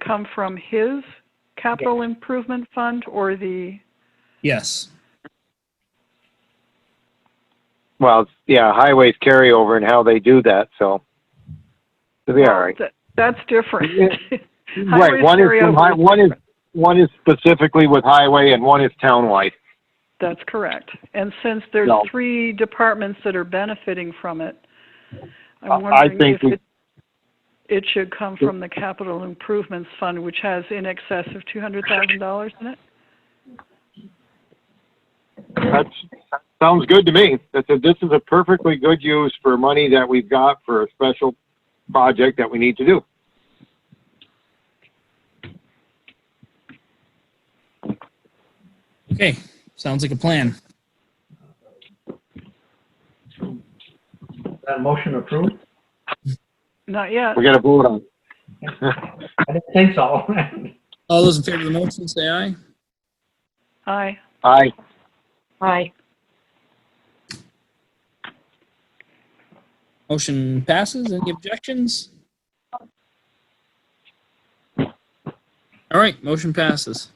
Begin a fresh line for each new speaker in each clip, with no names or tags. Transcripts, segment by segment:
come from his capital improvement fund or the,
Yes.
Well, it's- yeah, highways carryover and how they do that, so. It'll be all right.
That- that's different.
Right,
highways
one is,
carryover
from hi-
is
one is, one is specifically with highway and one is townwide.
That's correct. And since there's
No.
three departments that are benefiting from it,
I- I
I'm wondering
think
if
we-
it, it should come from the capital improvements fund, which has in excess of two hundred thousand dollars in it?
That's, sounds good to me. That's a, this is a perfectly good use for money that we've got for a special project that we need to do.
Okay. Sounds like a plan.
That motion approved?
Not yet.
We gotta vote on.
I didn't think so.
All those in favor of the motion, say aye.
Aye.
Aye,
Aye.
Motion passes. Any objections? All right, motion passes.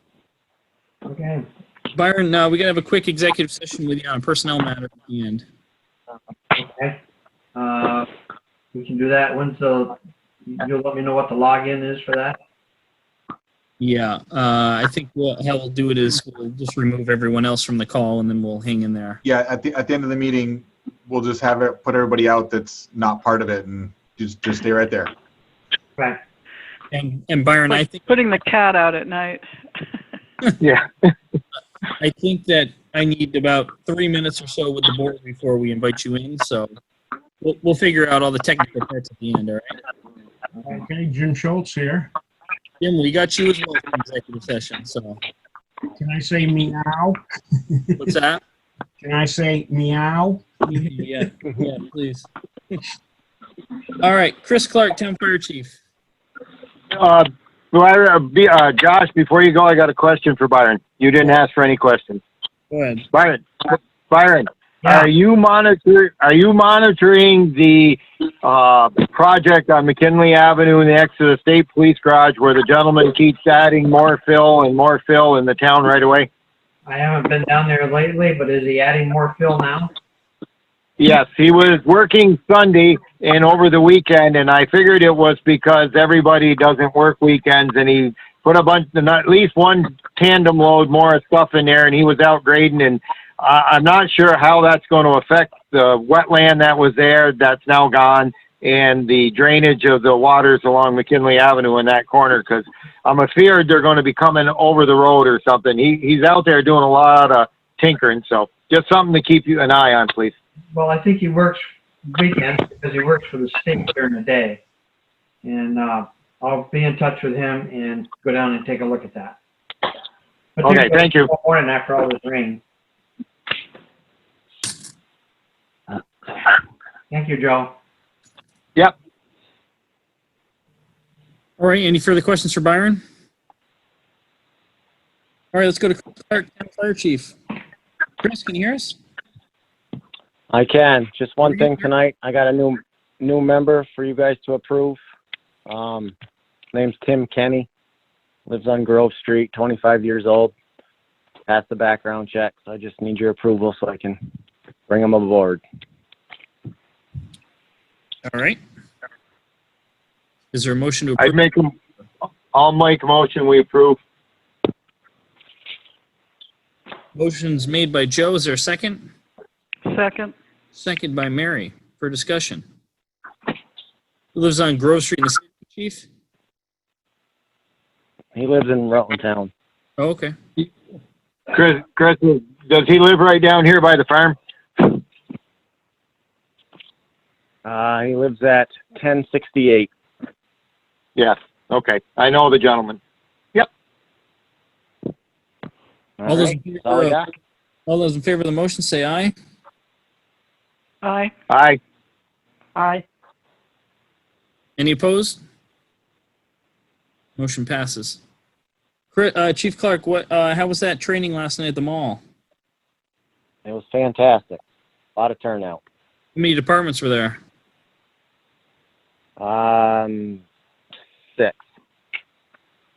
Okay.
Byron, uh, we gotta have a quick executive session with you on a personnel matter at the end.
Okay. Uh, we can do that. When's the, you'll let me know what the login is for that?
Yeah, uh, I think what, how we'll do it is we'll just remove everyone else from the call and then we'll hang in there.
Yeah, at the, at the end of the meeting, we'll just have it, put everybody out that's not part of it and just, just stay right there.
Right.
And, and Byron, I think,
Putting the cat out at night.
yeah,
I think that I need about three minutes or so with the board before we invite you in, so we'll, we'll figure out all the technical parts at the end, all right?
Okay, Jim Schultz here.
Jim, we got you as well for executive session, so
Can I say meow?
what's that?
Can I say meow?
Yeah, yeah, please. All right, Chris Clark, Town Fire Chief.
uh, Byron, uh, be- uh, Josh, before you go, I got a question for Byron. You didn't ask for any questions.
Go ahead.
Byron, Byron,
Yeah.
are you monitor, are you monitoring the, uh, project on McKinley Avenue next to the State Police Garage where the gentleman keeps adding more fill and more fill in the town right away?
I haven't been down there lately, but is he adding more fill now?
Yes, he was working Sunday and over the weekend, and I figured it was because everybody doesn't work weekends, and he put a bunch, at least one tandem load more of stuff in there, and he was out grading, and I, I'm not sure how that's going to affect the wetland that was there that's now gone, and the drainage of the waters along McKinley Avenue in that corner, because I'm afraid they're going to be coming over the road or something. He, he's out there doing a lot of tinkering, so just something to keep you an eye on, please.
Well, I think he works weekends because he works for the state during the day. And, uh, I'll be in touch with him and go down and take a look at that.
Okay, thank you.
Morning after all this rain.
Uh,
Thank you, Joe.
All right, any further questions for Byron? All right, let's go to Chris Clark, Town Fire Chief. Chris, can you hear us?
I can. Just one
Mhm.
thing tonight. I got a new, new member for you guys to approve. Um, name's Tim Kenny. Lives on Grove Street, twenty-five years old. Passed the background check, so I just need your approval so I can bring him aboard.
All right. Is there a motion to
I'd
approve?
make them, I'll make a motion, we approve.
Motion's made by Joe. Is there a second?
Second.
Second by Mary for discussion. Who lives on Grove Street in the city, Chief?
He lives in Rutland Town.
Oh, okay.
Chris, Chris, does he live right down here by the farm?
Uh, he lives at ten sixty-eight.
Yes, okay, I know the gentleman.
All
All
those,
right,
in
that's all I
favor of-
got.
all those in favor of the motion, say aye.
Aye.
Aye,
Aye.
Any opposed? Motion passes. Chri- uh, Chief Clark, what, uh, how was that training last night at the mall?
It was fantastic. A Lot of turnout.
How many departments were there?
Um, six.